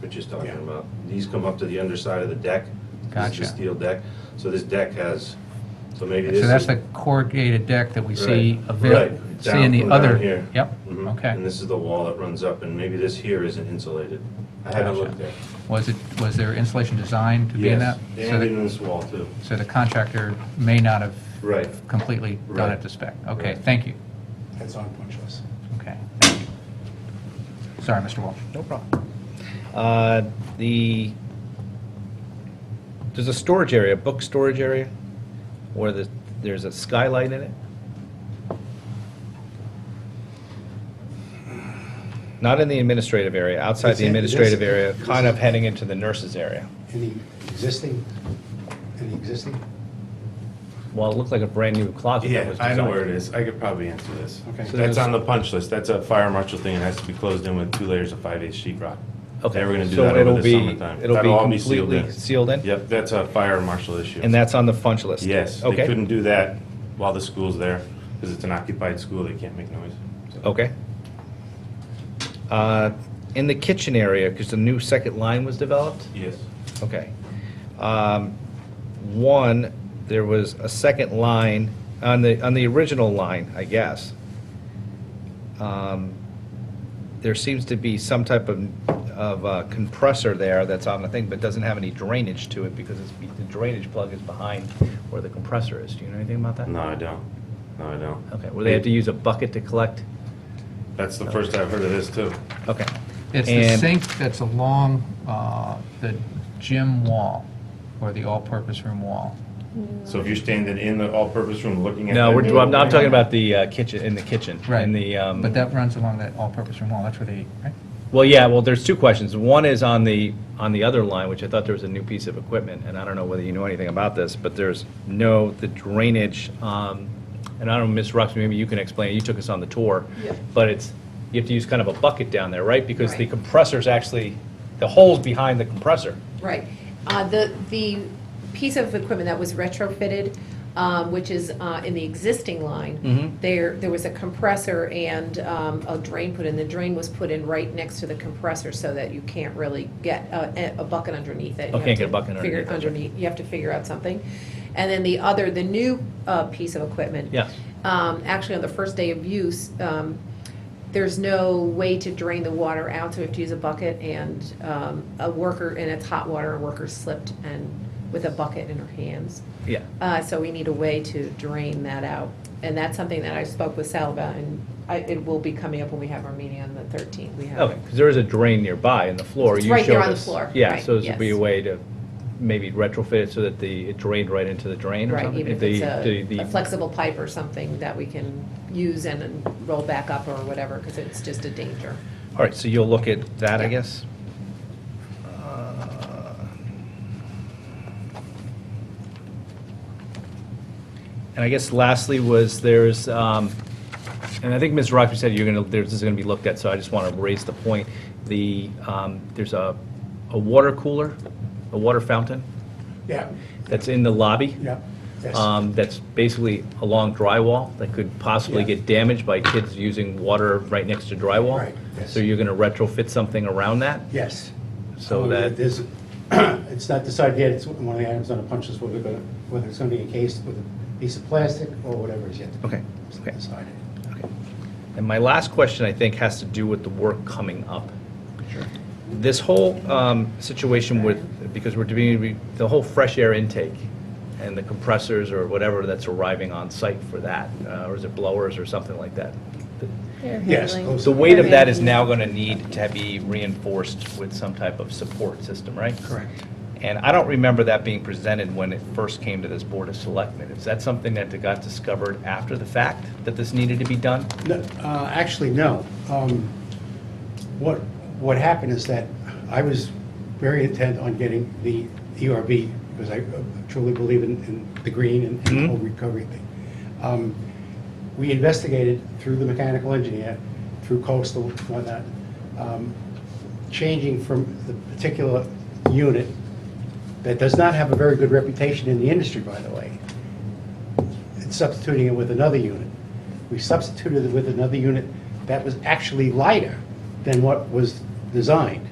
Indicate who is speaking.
Speaker 1: what she's talking
Speaker 2: Yeah.
Speaker 1: about. These come up to the underside of the deck. This
Speaker 3: Gotcha.
Speaker 1: is a steel deck, so this deck has, so maybe this is...
Speaker 3: So that's the corrugated deck that we see
Speaker 1: Right,
Speaker 3: avail,
Speaker 1: right,
Speaker 3: see
Speaker 1: down
Speaker 3: in the
Speaker 1: from down
Speaker 3: other.
Speaker 1: here.
Speaker 3: Yep,
Speaker 1: Mhm. And
Speaker 3: okay.
Speaker 1: this is the wall that runs up, and maybe this here isn't insulated. I haven't
Speaker 3: Gotcha.
Speaker 1: looked there.
Speaker 3: Was it, was there insulation designed to be in that?
Speaker 1: Yes,
Speaker 3: So
Speaker 1: and
Speaker 3: the-
Speaker 1: in this wall too.
Speaker 3: So the contractor may not have
Speaker 1: Right.
Speaker 3: completely done
Speaker 1: Right.
Speaker 3: it to spec. Okay,
Speaker 1: Right.
Speaker 3: thank you.
Speaker 2: That's on punch list.
Speaker 3: Okay, thank you. Sorry, Mr. Walsh.
Speaker 4: No problem. Uh, The, there's a storage area, book storage area, where the, there's a skylight in it. Not in the administrative area, outside
Speaker 2: It's
Speaker 4: the
Speaker 2: in- it is-
Speaker 4: administrative area,
Speaker 2: it is-
Speaker 4: kind of heading into the nurses' area.
Speaker 2: Any existing, any existing?
Speaker 4: Well, it looked like a brand-new closet that
Speaker 5: Yeah,
Speaker 4: was
Speaker 5: I
Speaker 4: designed.
Speaker 5: know where it is. I could probably answer this.
Speaker 2: Okay. So
Speaker 5: That's
Speaker 4: there's-
Speaker 5: on the punch list. That's a fire marshal thing. It has to be closed in with two layers of five eight sheet rock.
Speaker 4: Okay,
Speaker 5: They were gonna do
Speaker 4: so
Speaker 5: that
Speaker 4: it'll
Speaker 5: over the
Speaker 4: be-
Speaker 5: summertime.
Speaker 4: it'll
Speaker 5: That'll
Speaker 4: be
Speaker 5: all be sealed
Speaker 4: completely
Speaker 5: in.
Speaker 4: sealed in?
Speaker 5: Yep, that's a fire marshal issue.
Speaker 4: And that's on the punch list?
Speaker 5: Yes, they
Speaker 4: Okay.
Speaker 5: couldn't do that while the school's there, because it's an occupied school. They can't make noise.
Speaker 4: Okay. Uh, In the kitchen area, because the new second line was developed?
Speaker 5: Yes.
Speaker 4: Okay. Um, One, there was a second line, on the, on the original line, I guess. Um, There seems to be some type of, of uh, compressor there that's on the thing, but doesn't have any drainage to it because it's, the drainage plug is behind where the compressor is. Do you know anything about that?
Speaker 5: No, I don't. No, I don't.
Speaker 4: Okay, well, they have to use a bucket to collect?
Speaker 5: That's the first I've heard of this, too.
Speaker 4: Okay.
Speaker 3: It's the
Speaker 4: And-
Speaker 3: sink that's along uh, the gym wall, or the all-purpose room wall.
Speaker 5: So if you're standing in the all-purpose room looking at.
Speaker 4: No,
Speaker 5: that
Speaker 4: we're,
Speaker 5: new
Speaker 4: I'm, I'm
Speaker 5: opening-
Speaker 4: talking about the uh, kitchen, in the kitchen. In the, um,
Speaker 3: But that runs along that all-purpose room wall, that's where they, right?
Speaker 4: well, yeah, well, there's two questions. One is on the, on the other line, which I thought there was a new piece of equipment, and I don't know whether you know anything about this, but there's no, the drainage, um, and I don't know, Ms. Rux, maybe you can explain, you took us on the tour.
Speaker 6: Yeah.
Speaker 4: But it's, you have to use kind of a bucket down there, right? Because the
Speaker 6: Right.
Speaker 4: compressor's actually, the hole's behind the compressor.
Speaker 6: Right. Uh, The, the piece of equipment that was retrofitted, um, which is uh, in the existing line,
Speaker 4: Mhm.
Speaker 6: there, there was a compressor and um, a drain put in. The drain was put in right next to the compressor so that you can't really get a, a bucket underneath it.
Speaker 4: Oh,
Speaker 6: You have
Speaker 4: can't
Speaker 6: to
Speaker 4: get a bucket
Speaker 6: figure
Speaker 4: underneath, that's right.
Speaker 6: underneath- You have to figure out something. And then the other, the new uh, piece of equipment.
Speaker 4: Yes.
Speaker 6: um, Actually, on the first day of use, um, there's no way to drain the water out, so we have to use a bucket, and um, a worker, and it's hot water, a worker slipped and, with a bucket in her hands.
Speaker 4: Yeah.
Speaker 6: Uh, So we need a way to drain that out, and that's something that I spoke with Sal about, and I- it will be coming up when we have our meeting on the 13th. We have
Speaker 4: Okay, because there is a drain nearby in the floor.
Speaker 6: It's
Speaker 4: You
Speaker 6: right there
Speaker 4: showed
Speaker 6: on the
Speaker 4: us.
Speaker 6: floor,
Speaker 4: Yeah,
Speaker 6: right,
Speaker 4: so this would be a
Speaker 6: yes.
Speaker 4: way to maybe retrofit it so that the, it drained right into the drain or
Speaker 6: Right,
Speaker 4: something?
Speaker 6: even if
Speaker 4: The-
Speaker 6: it's a
Speaker 4: the-
Speaker 6: a flexible pipe or something that we can use and then roll back up or whatever, because it's just a danger.
Speaker 4: All right, so you'll look at that, I
Speaker 6: Yeah.
Speaker 4: guess? Uh, And I guess lastly was there's, um, and I think Ms. Rockby said you're going to, this is going to be looked at, so I just want to raise the point. The, um, there's a, a water cooler, a water fountain
Speaker 2: Yeah,
Speaker 4: that's in the lobby.
Speaker 2: yeah, yes.
Speaker 4: um, that's basically a long drywall that could possibly
Speaker 2: Yeah.
Speaker 4: get damaged by kids using water right next to drywall.
Speaker 2: Right, yes.
Speaker 4: So you're going to retrofit something around that?
Speaker 2: Yes.
Speaker 4: So
Speaker 2: Um,
Speaker 4: that-
Speaker 2: There's, it's not decided yet, it's one of the items on the punch list, whether, we're gonna- whether it's gonna be encased with a piece of plastic or whatever is yet to
Speaker 4: Okay,
Speaker 2: be
Speaker 4: okay.
Speaker 2: decided.
Speaker 4: And my last question, I think, has to do with the work coming up. This whole um, situation with, because we're doing, we- the whole fresh air intake and the compressors or whatever that's arriving on site for that, uh, or is it blowers or something like that?
Speaker 2: Yes. those-
Speaker 4: The weight of that is now going to need to be reinforced with some type of support system, right?
Speaker 2: Correct.
Speaker 4: And I don't remember that being presented when it first came to this Board of Selectmen. Is that something that got discovered after the fact, that this needed to be done?
Speaker 2: No, uh, Actually, no. Um, What, what happened is that I was very intent on getting the ERB, because I uh, truly believe in, in the green and the whole recovery thing. Um, We investigated through the mechanical engineer, through coastal, and whatnot, um, changing from the particular unit that does not have a very good reputation in the industry, by the way, and substituting it with another unit. We substituted it with another unit that was actually lighter than what was designed.